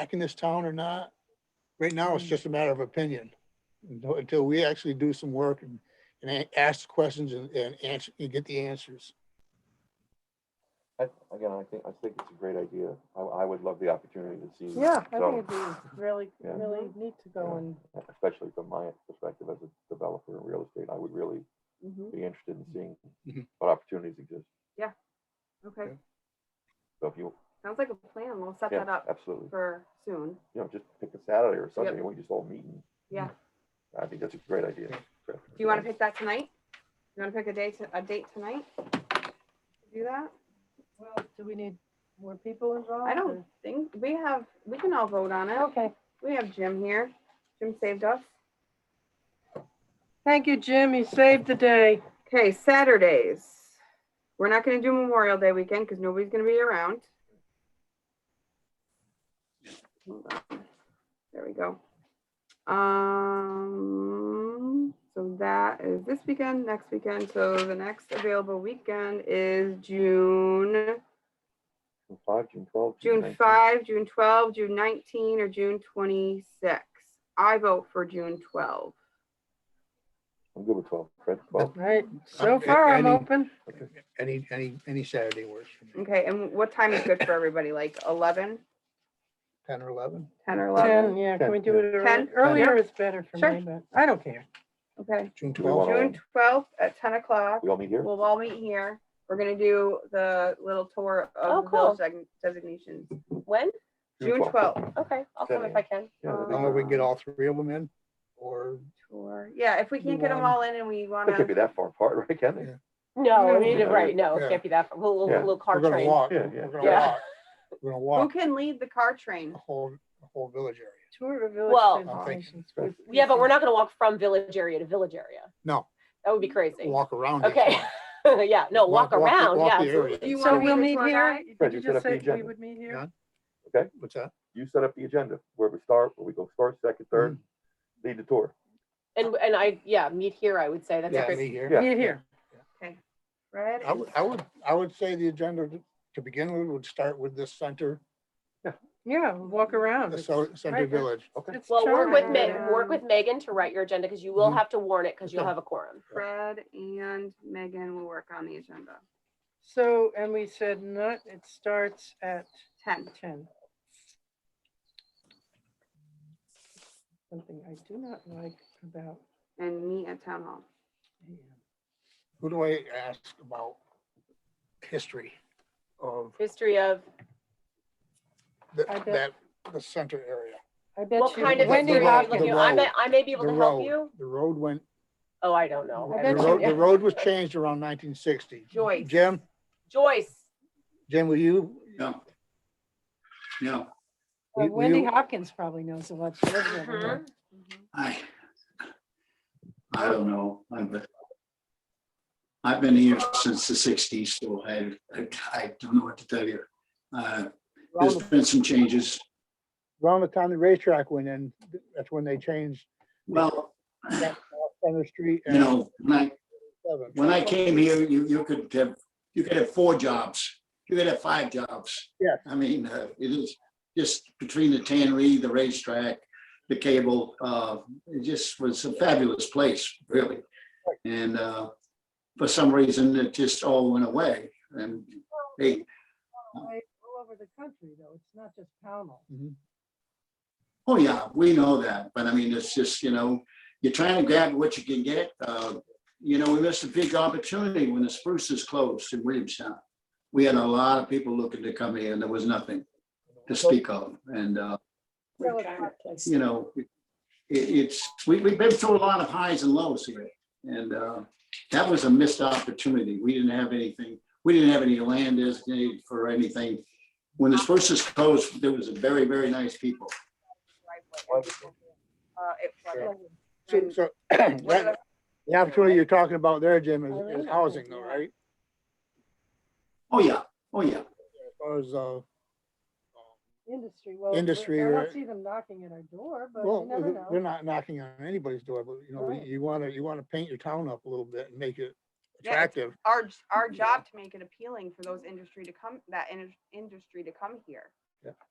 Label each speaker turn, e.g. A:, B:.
A: back in this town or not. Right now,
B: Hmm.
A: it's just a matter of opinion. Until- Until we actually do some work and, and a- ask questions and, and answer, you get the answers.
C: I, again, I think, I think it's a great idea. I, I would love the opportunity to see.
D: Yeah, I
C: some,
D: think it'd be really,
C: Yeah.
D: really neat to go and,
C: Especially from my perspective as a developer in real estate, I would really
E: Mhm.
C: be interested in seeing
A: Mhm.
C: what opportunities exist.
E: Okay,
C: So if you,
E: sounds like a plan. We'll set
C: yeah,
E: that up
C: absolutely.
E: for soon.
C: You know, just pick a Saturday or Sunday and we just all meet and.
E: Yeah.
C: I think that's a great idea. Do
E: Do you want to pick that tonight? You want to pick a day to, a date tonight? Do that?
D: well, do we need more people involved?
E: I don't think, we have, we can all vote on
D: or-
E: it.
D: Okay,
E: We have Jim here. Jim saved us.
D: thank you, Jim, you saved the day.
E: Okay, Saturdays. We're not gonna do Memorial Day weekend because nobody's gonna be around. Hold on. There we go. Um, so that is this weekend, next weekend. So the next available weekend is June,
C: June Five, June twelve.
E: June
C: 19.
E: five, June twelve, June nineteen, or June twenty-six. I vote for June twelve.
C: I'm good with twelve, Fred, twelve.
D: All Right, so
A: Okay,
D: far I'm
A: any-
D: open.
A: Any, any, any Saturday works for me,
E: Okay, and what time is good for everybody? Like eleven,
A: ten or eleven.
E: ten or eleven?
D: Ten, yeah, can we do
C: Ten,
D: it
E: yeah. Ten?
D: early- earlier is better for
E: Sure.
D: me, but I don't care.
E: Okay.
A: June
C: Do we want
A: twelfth,
C: to-
E: June twelfth at ten o'clock.
C: We all meet here?
E: We'll all meet here. We're gonna do the little tour
B: Oh,
E: of the village deg- designations.
B: When?
C: June
E: June
C: 12th.
E: twelfth.
B: Okay, I'll come if I can. Um,
C: Yeah, that'd be
A: Uh,
C: great.
A: we can get all three of them in, or
E: Tour. Yeah, if we can't get them
A: One.
E: all in and we
C: They can't
E: wanna,
C: be that far apart, right, can they?
B: No,
E: No,
B: I mean,
C: yeah.
B: right, no,
A: Yeah.
B: it can't be that, far. we'll, we'll,
C: Yeah.
B: we'll car
A: we're gonna
B: train.
A: walk,
C: Yeah,
A: we're
C: yeah.
A: gonna
B: Yeah.
A: walk. We're gonna
E: who
A: walk
E: can lead the car train?
A: the whole, the whole village area.
D: Tour of
B: Well-
D: village
A: Okay.
D: presentations. would be
B: Yeah, but we're not gonna walk from village area to village area.
A: No,
B: That would be crazy.
A: Mm, walk around. it.
B: Okay, yeah, no,
A: Walk-
B: walk
A: walk the-
B: around,
A: walk
B: yeah.
A: the area.
E: Do you
B: absolutely.
E: wanna
D: So
E: be
D: we'll
E: the
D: meet
E: tour
D: here?
E: guide?
D: Did
C: Fred,
D: you
C: you set
D: just
C: up the
D: say we
C: agenda.
D: would meet
A: Yeah.
D: here?
A: What's that?
C: You set up the agenda, where we start, where we go first, second, third, lead the tour.
B: And, and I, yeah, meet here, I would say, that's a
A: Yeah,
B: great,
A: me here.
C: Yeah.
D: Meet here.
E: Red
A: I would, I would, I would say the agenda to- to begin with would start with this center,
D: Yeah, walk around.
A: the
D: It's-
A: so- center
D: right.
A: village.
C: Okay.
D: it's
B: well, work with
D: charming.
B: Ma, work with Megan to write your agenda, because you will
A: Mhm.
B: have to warn it, because you'll
A: Okay.
B: have a quorum.
E: Fred and Megan will work on the agenda.
D: So, and we said not, it starts at
E: Ten.
D: ten. Something I do not like about.
E: And meet at town hall.
A: Who do I ask about history of
B: History of,
A: th-
D: I bet-
A: that, the center area?
D: I bet you.
B: what kind of
A: the
B: history
A: road-
B: are you
A: the
B: looking, I may,
A: road.
B: I may be able
A: The
B: to help
A: road-
B: you,
A: The road went,
B: oh, I don't know.
D: I
A: the
D: bet you-
A: road, the road was changed around nineteen sixty.
E: Joyce.
A: Jim,
B: Joyce,
A: Jim, will you?
F: No. No,
D: Well,
A: will
D: uh, Wendy
A: you-
D: Hopkins probably knows a lot. She lives over there.
B: Mm-hmm.
F: I, I don't know. I've been, I've been here since the sixties, so I, I- I don't know what to tell you. Uh, There's been some changes.
A: Around the time the racetrack went in, th- that's when they changed
F: Well,
A: that off Center Street
F: you
A: and
F: know, when I,
A: Seventh.
F: when I came here, you, you could have, you could have four jobs. You could have five jobs.
A: Yeah.
F: I mean, uh, it is just between the tannery, the racetrack, the cable, uh, it just was a fabulous place, really. And, uh, for some reason, it just all went away and they,
D: Like, All over the country, though. It's not just Pownell.
F: Oh, yeah, we know that, but I mean, it's just, you know, you're trying to grab what you can get. Uh, You know, we missed a big opportunity when the spruces closed in Williamstown. We had a lot of people looking to come here and there was nothing to speak of and, uh, you know, it, it's, we, we've been through a lot of highs and lows here. And, uh, that was a missed opportunity. We didn't have anything, we didn't have any land designated for anything. When the spruces closed, there was a very, very nice people.
E: Uh, it flooded.
A: So, so that- the opportunity you're talking about there, Jim,
B: Oh,
A: is- is housing though, right?
F: Oh, yeah, oh, yeah.
A: As far as, uh,
D: Industry, well.
A: Industry,
D: I don't
A: right.
D: see them knocking at our door, but
A: well, uh,
D: you never
A: they're
D: know.
A: not knocking on anybody's door, but you know,
D: Right.
A: you wanna, you wanna paint your town up a little bit and make it
E: Yeah, it's-
A: attractive.
E: Our, our job to make it appealing for those industry to come, that in- industry to come here.
A: Yeah.